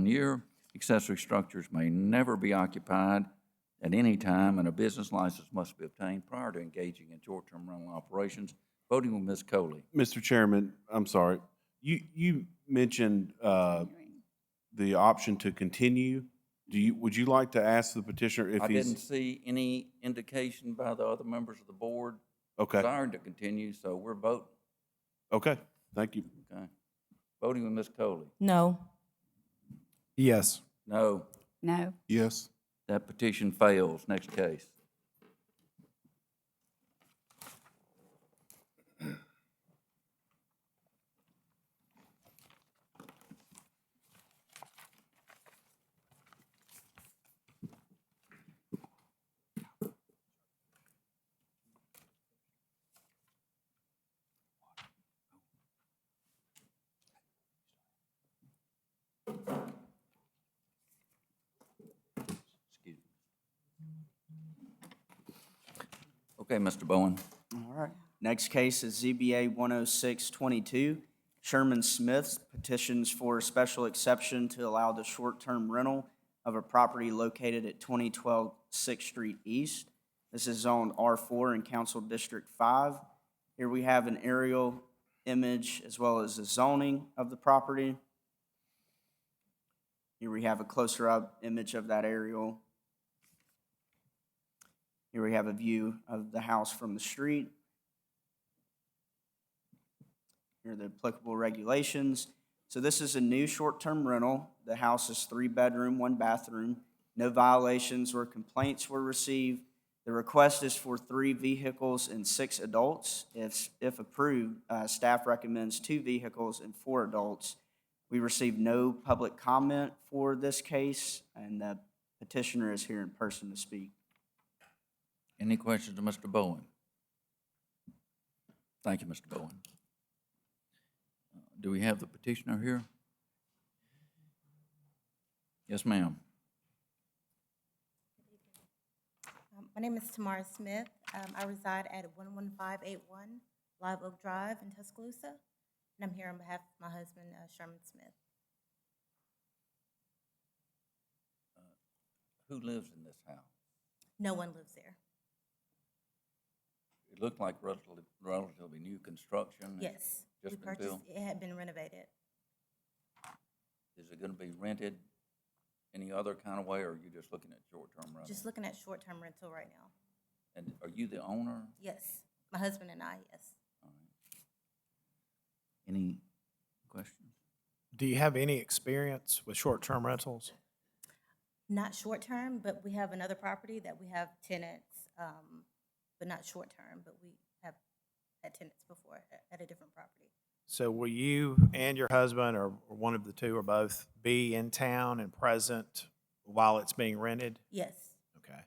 year. Accessory structures may never be occupied at any time, and a business license must be obtained prior to engaging in short-term rental operations. Voting with Ms. Coley. Mr. Chairman, I'm sorry. You, you mentioned uh, the option to continue. Do you, would you like to ask the petitioner if I didn't he's? see any indication by the other members of the board Okay, desiring to continue, so we're voting, okay, thank you. okay? Voting with Ms. Coley. No. Yes. No, No. Yes. that petition fails. Next case. Excuse me. Okay, Mr. Bowen. All right. Next case is ZBA 10622. Sherman Smith petitions for a special exception to allow the short-term rental of a property located at 2012 6th Street East. This is zoned R4 in Council District 5. Here we have an aerial image as well as the zoning of the property. Here we have a closer-up image of that aerial. Here we have a view of the house from the street. Here are the applicable regulations. So this is a new short-term rental. The house is three-bedroom, one bathroom. No violations or complaints were received. The request is for three vehicles and six adults. If, if approved, uh, staff recommends two vehicles and four adults. We received no public comment for this case, and the petitioner is here in person to speak. Any questions to Mr. Bowen? Thank you, Mr. Bowen. Do we have the petitioner here? Yes, ma'am. Um, My name is Tamara Smith. Um, I reside at 11581 Live Oak Drive in Tuscaloosa, and I'm here on behalf of my husband, uh, Sherman Smith. Who lives in this house? No one lives there. It looked like relatively, relatively new construction. Yes. we Mm-hmm. Just been purchased- built. It had been renovated. Is it gonna be rented any other kind of way, or are you just looking at short-term rental? Just looking at short-term rental right now. And are you the owner? Yes, my husband and I, yes. Any questions? Do you have any experience with short-term rentals? Not short-term, but we have another property that we have tenants, um, but not short-term, but we have had tenants before at- at a different property. So will you and your husband, or or one of the two, or both, be in town and present while it's being rented? Yes, Okay.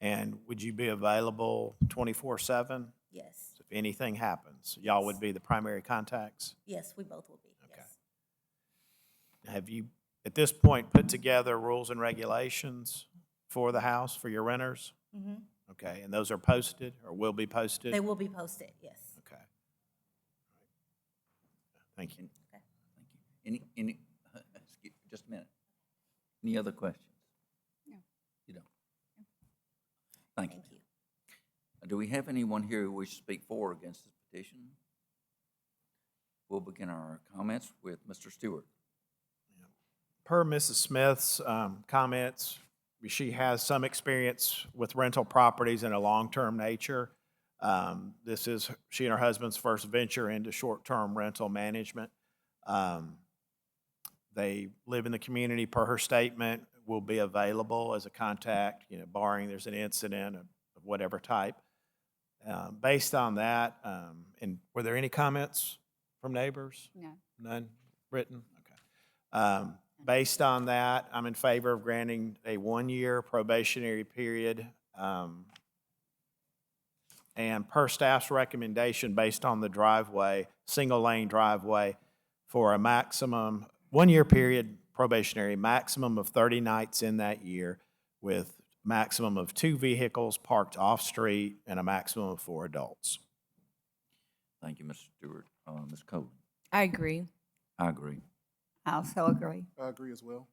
And would you be available twenty-four-seven yes, if anything happens? Y'all would be the primary contacts? yes, we both will be, Okay. yes. Have you, at this point, put together rules and regulations for the house, for your renters? hmm Okay, and those are posted, or will be posted? They will be posted, yes. Okay. Thank you. Thank you. Any, any, uh, excuse- just a minute. Any other questions? No. You don't? Thank you. Thank you. Do we have anyone here who wishes to speak for or against this petition? We'll begin our comments with Mr. Stewart. Per Mrs. Smith's um, comments, she has some experience with rental properties in a long-term nature. Um, This is she and her husband's first venture into short-term rental management. Um, They live in the community, per her statement, will be available as a contact, you know, barring there's an incident of of whatever type. Um, Based on that, um, and were there any comments from neighbors? No. None written? Okay. Um, Based on that, I'm in favor of granting a one-year probationary period. um, And per staff's recommendation, based on the driveway, single-lane driveway, for a maximum, one-year period probationary, maximum of 30 nights in that year, with maximum of two vehicles parked off-street and a maximum of four adults. Thank you, Mr. Stewart. Uh, Ms. Coleman? I agree. I agree. I also agree. I agree as well.